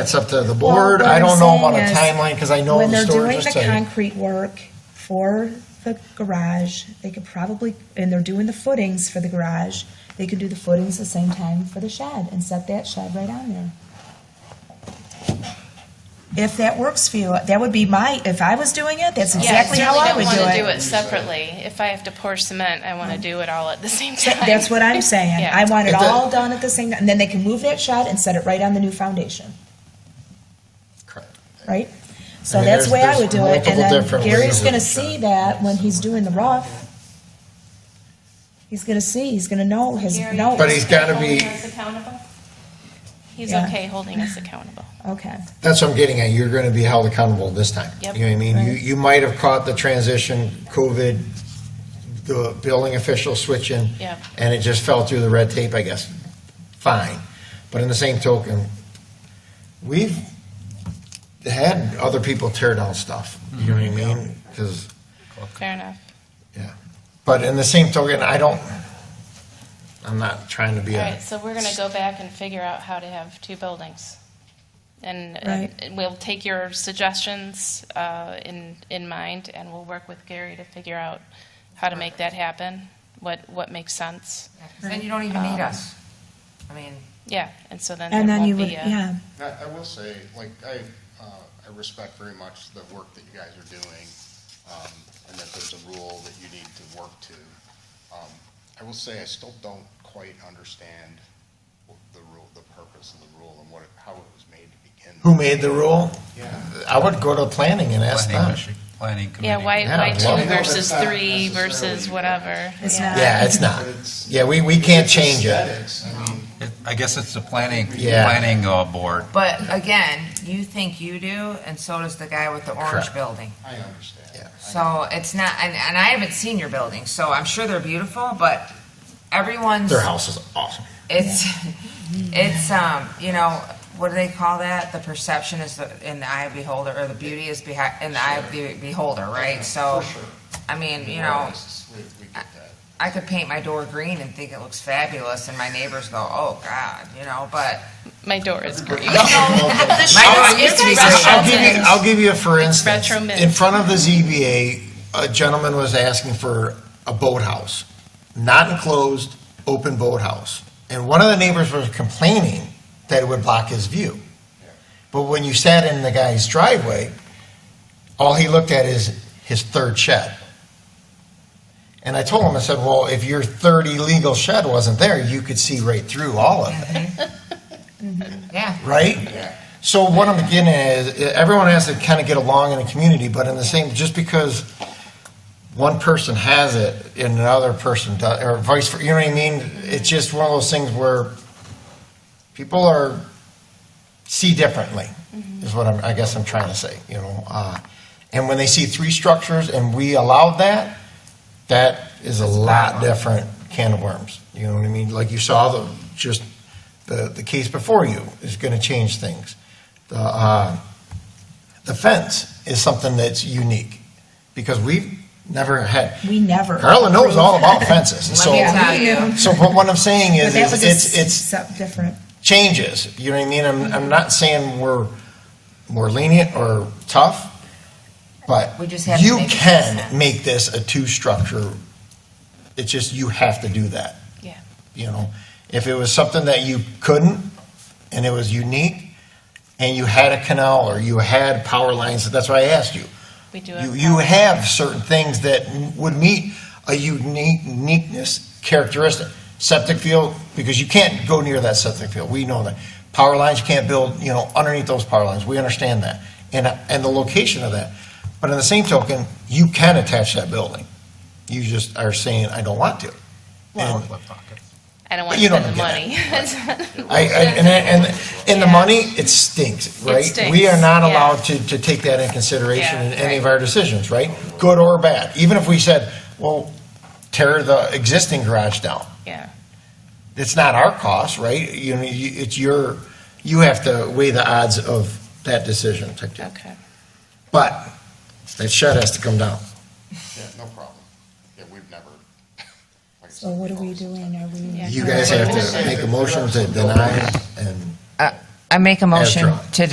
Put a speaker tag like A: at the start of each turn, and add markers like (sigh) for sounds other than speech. A: That's up to the board.
B: Well, what
A: I don't
B: I'm
A: know about a
B: saying is,
A: timeline because I know
B: When
A: the
B: they're
A: story
B: doing the
A: just said.
B: concrete work for the garage, they could probably, and they're doing the footings for the garage, they could do the footings the same time for the shed and set that shed right on there. If that works for you, that would be my, if I was doing it, that's
C: Yeah,
B: exactly how I would
C: certainly don't want to do
B: do it.
C: it separately. If I have to pour cement, I want to do it all at the (laughs) same time.
B: That- That's what
C: (laughs)
B: I'm saying.
C: Yeah.
B: I want it
A: If the-
B: all done at the same, and then they can move that shed and set it right on the new foundation.
A: Correct.
B: right? So
A: I mean,
B: that's the way
A: there's-
B: I would do
A: there's
B: it, and
A: multiple
B: then
A: different ways
B: Gary's
A: of
B: gonna
A: it.
B: see that when he's doing the rough. He's gonna see, he's gonna know his
C: Gary,
B: notes.
A: But he's gotta
C: holding
A: be-
C: us accountable? He's
B: Yeah.
C: okay holding us accountable.
B: Okay,
A: That's what I'm getting at. You're going to be held accountable this time.
C: Yep.
A: You know what I mean? You,
B: Right.
A: you might have caught the transition, COVID, the building official switching.
C: Yep.
A: And it just fell through the red tape, I guess. Fine. But in the same token, we've had other people tear down stuff. You know what I
B: Mm-hmm.
A: mean? Because
C: Fair enough.
A: Yeah, but in the same token, I don't, I'm not trying to be
C: All
A: a,
C: right, so we're going to go back and figure out how to have two buildings. And, and we'll take your suggestions uh, in, in mind, and we'll work with Gary to figure out how to make that happen, what, what makes sense.
D: Then you don't even
E: Um,
D: need us. I mean,
C: Yeah, and so then
B: and
C: there
B: then you
C: won't
B: would,
C: be a,
B: yeah,
E: I, I will say, like, I, uh, I respect very much the work that you guys are doing, um, and that there's a rule that you need to work to. Um, I will say, I still don't quite understand the rule, the purpose of the rule and what, it- how it was made to begin.
A: who made the rule?
E: Yeah.
A: I would go to planning and ask them.
F: Planning, planning committee.
C: yeah, why,
A: Yeah,
C: why
A: I'd love
C: two
A: it.
C: versus
E: No, that's not
C: three versus
E: necessarily-
C: whatever?
B: it's
C: Yeah.
B: not.
A: Yeah, it's not,
E: But it's-
A: yeah, we, we can't change it.
E: Aesthetics, I mean,
F: It- I guess it's the planning,
A: Yeah.
F: planning uh, board.
D: but again, you think you do, and so does the guy with the orange
A: Correct.
D: building.
E: I understand.
A: Yeah.
D: So it's not, and, and I haven't seen your building, so I'm sure they're beautiful, but everyone's,
A: Their house is awesome.
D: it's, it's, um, you know, what do they call that? The perception is the, in the eye of beholder, or the beauty is behind, in the eye of the beholder, right? So,
E: For sure.
D: I mean, you know,
E: We, we get that.
D: I could paint my door green and think it looks fabulous, and my neighbors go, "Oh God," you know. But
C: My door is green.
D: my door used to be
A: I'll
D: green.
A: give you, I'll give you, a for instance,
C: retro mint.
A: in front of the ZBA, a gentleman was asking for a boathouse, not enclosed, open boathouse. And one of the neighbors was complaining that it would block his view. But when you sat in the guy's driveway, all he looked at is his third shed. And I told him, I said, well, if your third illegal shed wasn't there, you could see right through all of it
D: Yeah,
A: right? So what I'm getting at is, eh, everyone has to kind of get along in the community, but in the same, just because one person has it and another person does, or vice versa, you know what I mean? It's just one of those things where people are, see differently, is what I'm, I guess I'm trying to say, you know? uh, And when they see three structures and we allowed that, that is a lot different can of worms, you know what I mean? Like you saw the, just the, the case before you is going to change things. The, uh, the fence is something that's unique because we've never had.
B: We never
A: Carla knows all
B: approved.
A: about fences. and so,
D: Let me tell you.
A: so what what I'm saying
B: But
A: is,
B: that
A: is
B: was a
A: it's, it's,
B: s- different.
A: changes. You know what I mean? I'm, I'm not saying we're more lenient or tough, but
D: We just have to
A: you
D: make it
A: can
D: make sense.
A: make this a two structure. It's just you have to do that.
C: Yeah.
A: You know, if it was something that you couldn't and it was unique and you had a canal or you had power lines, that's why I asked you.
C: We do
A: You,
C: have.
A: you have certain things that would meet a unique, uniqueness characteristic. Septic field, because you can't go near that septic field, we know that. Power lines, you can't build, you know, underneath those power lines, we understand that, and, and the location of that. But in the same token, you can attach that building. You just are saying, I don't want to. And
C: I don't want to
A: You don't
C: spend the money.
A: get
C: (laughs)
A: I, I, and, and, and the
C: Yeah.
A: money, it stinks, right? We are
C: stinks,
A: not
C: yeah.
A: allowed to, to take that in consideration
C: Yeah,
A: in any of
C: right.
A: our decisions, right? Good or bad, even if we said, well, tear the existing garage down,
C: Yeah.
A: it's not our cost, right? You know, you, it's your, you have to weigh the odds of that decision, type deal.
C: Okay.
A: But that shed has to come down.
E: Yeah, no problem. Yeah, we've never. (laughs) like I
B: So
E: said,
B: what are we
E: proposed.
B: doing? Are we?
C: Yeah.
A: You guys have to make a motion to deny and.
D: I make a motion
A: drawn.
D: to